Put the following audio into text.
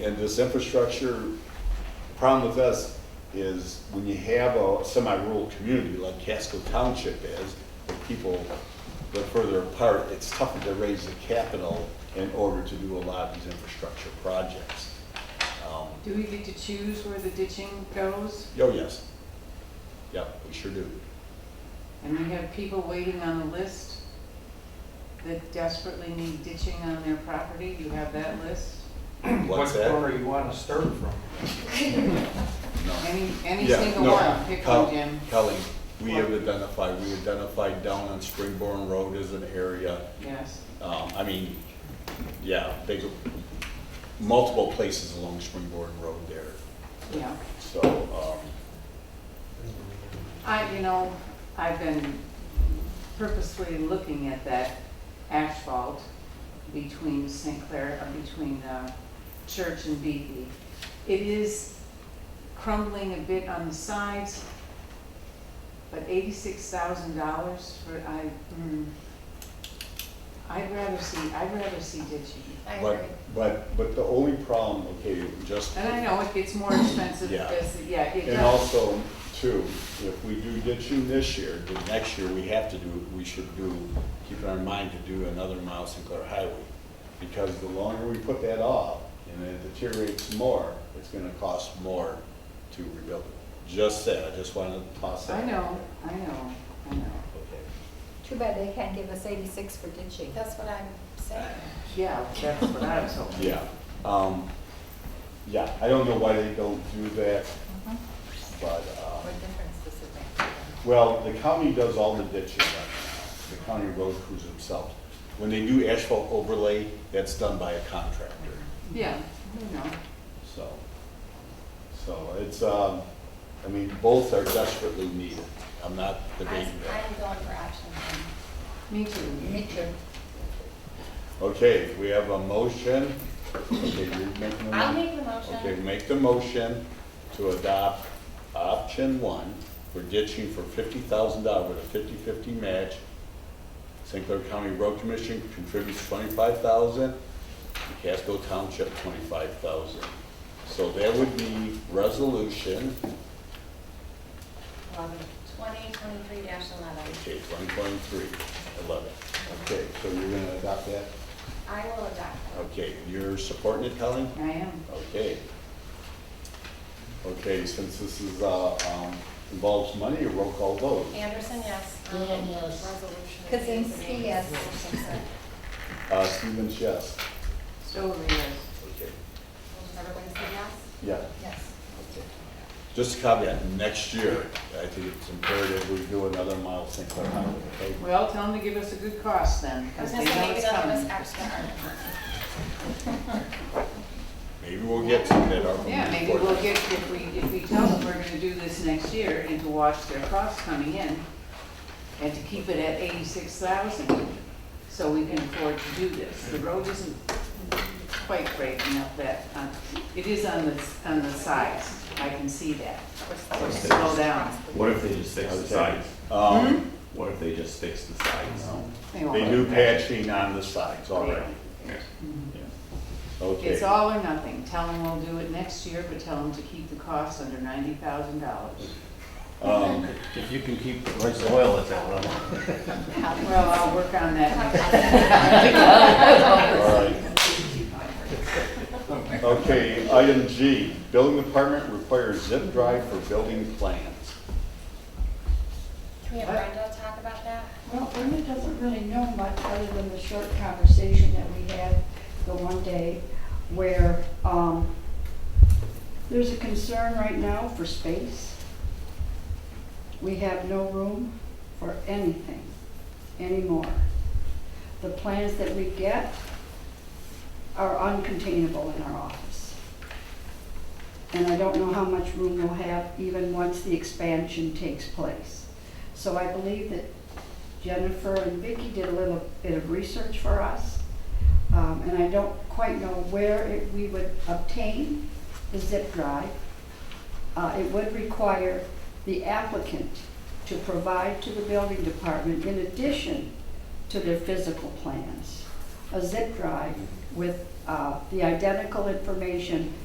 And this infrastructure, problem with us is when you have a semi-rural community like Casco Township is, where people live further apart, it's tougher to raise the capital in order to do a lot of these infrastructure projects. Um, Do we get to choose where the ditching goes? Oh, yes. Yep, we sure do. And we have people waiting on the list that desperately need ditching on their property? You have that list? What What's that? corner you want to start from? No. Any, any Yeah, single no, Uh, one, pick Col- one, Jim. Kelly, we have identified, we identified down on Springborn Road as an area, Yes, um, I mean, yeah, they go, multiple places along Springborn Road there, yeah. so, um, I, you know, I've been purposely looking at that asphalt between St. Clair, uh, between uh, Church and Beatty. It is crumbling a bit on the sides, but eighty-six thousand dollars for, I, mm, I'd rather see, I'd rather see ditching. I agree. but, but, but the only problem, okay, just. And I know it gets more expensive Yeah. as, yeah, it And does. also, too, if we do ditching this year, then next year we have to do, we should do, keep in our mind to do another mile Sinclair Highway. Because the longer we put that off, and it deteriorates more, it's gonna cost more to rebuild it. Just said, I just wanted to toss that. I out know, I know, I know. there. Okay. Too bad they can't give us eighty-six for ditching. That's what I'm saying. Yeah, that's what I was hoping. Yeah, um, yeah, I don't know why they don't do that, Mhm. but, um. What difference does it make? Well, the county does all the ditching right now, the county road crews themselves. When they do asphalt overlay, that's done by a contractor, Yeah, you know, so. So it's, um, I mean, both are desperately needed. I'm not I- debating that. I'm going for option me too. one. Me too. Okay, we have a motion. Okay, you're making a mo- I'll make the Okay, motion. make the motion to adopt option one for ditching for fifty thousand dollars with a fifty-fifty match. St. Clair County Road Commission contributes twenty-five thousand, Casco Township twenty-five thousand. So that would be resolution, Twenty twenty-three dash eleven. okay, one point three, eleven. Okay, so you're gonna adopt that? I will adopt that. Okay, you're supporting it, Colleen? I am. Okay. Okay, since this is, uh, um, involves money, a roll call vote. Anderson, yes. Dan, yes. Resolution. Kaczynski, yes. Uh, Stevens, yes. Stover, yes. Okay. Everybody say yes? Yeah, Yes. okay. Just a caveat, next year, I think it's imperative we do another mile St. Clair Highway, okay? Well, tell them to give us a good cost then, I was because they gonna say, know maybe it's they'll give us coming. extra. Maybe we'll get to that. ARPA Yeah, money maybe for we'll that. get, if we, if we tell them we're gonna do this next year and to watch their costs coming in and to keep it at eighty-six thousand, so we can afford to do this. The road isn't quite breaking up that, uh, it is on the, on the sides, I can see that. So slow down. What if they just fix the sides? Um, What if they just fix the sides? They won't they let do them. patching on the sides already. Okay. It's all or nothing. Tell them we'll do it next year, but tell them to keep the costs under ninety thousand dollars. Um, If you can keep the price of oil at that level. Well, I'll work on that. all right. Okay, item G, building department requires zip drive for building plans. Can we have Brenda talk about that? Well, Brenda doesn't really know much other than the short conversation that we had the one day where, um, there's a concern right now for space. We have no room for anything anymore. The plans that we get are uncontainable in our office. And I don't know how much room we'll have even once the expansion takes place. So I believe that Jennifer and Vicki did a little bit of research for us, um, and I don't quite know where it- we would obtain the zip drive. Uh, It would require the applicant to provide to the building department, in addition to their physical plans, a zip drive with uh, the identical information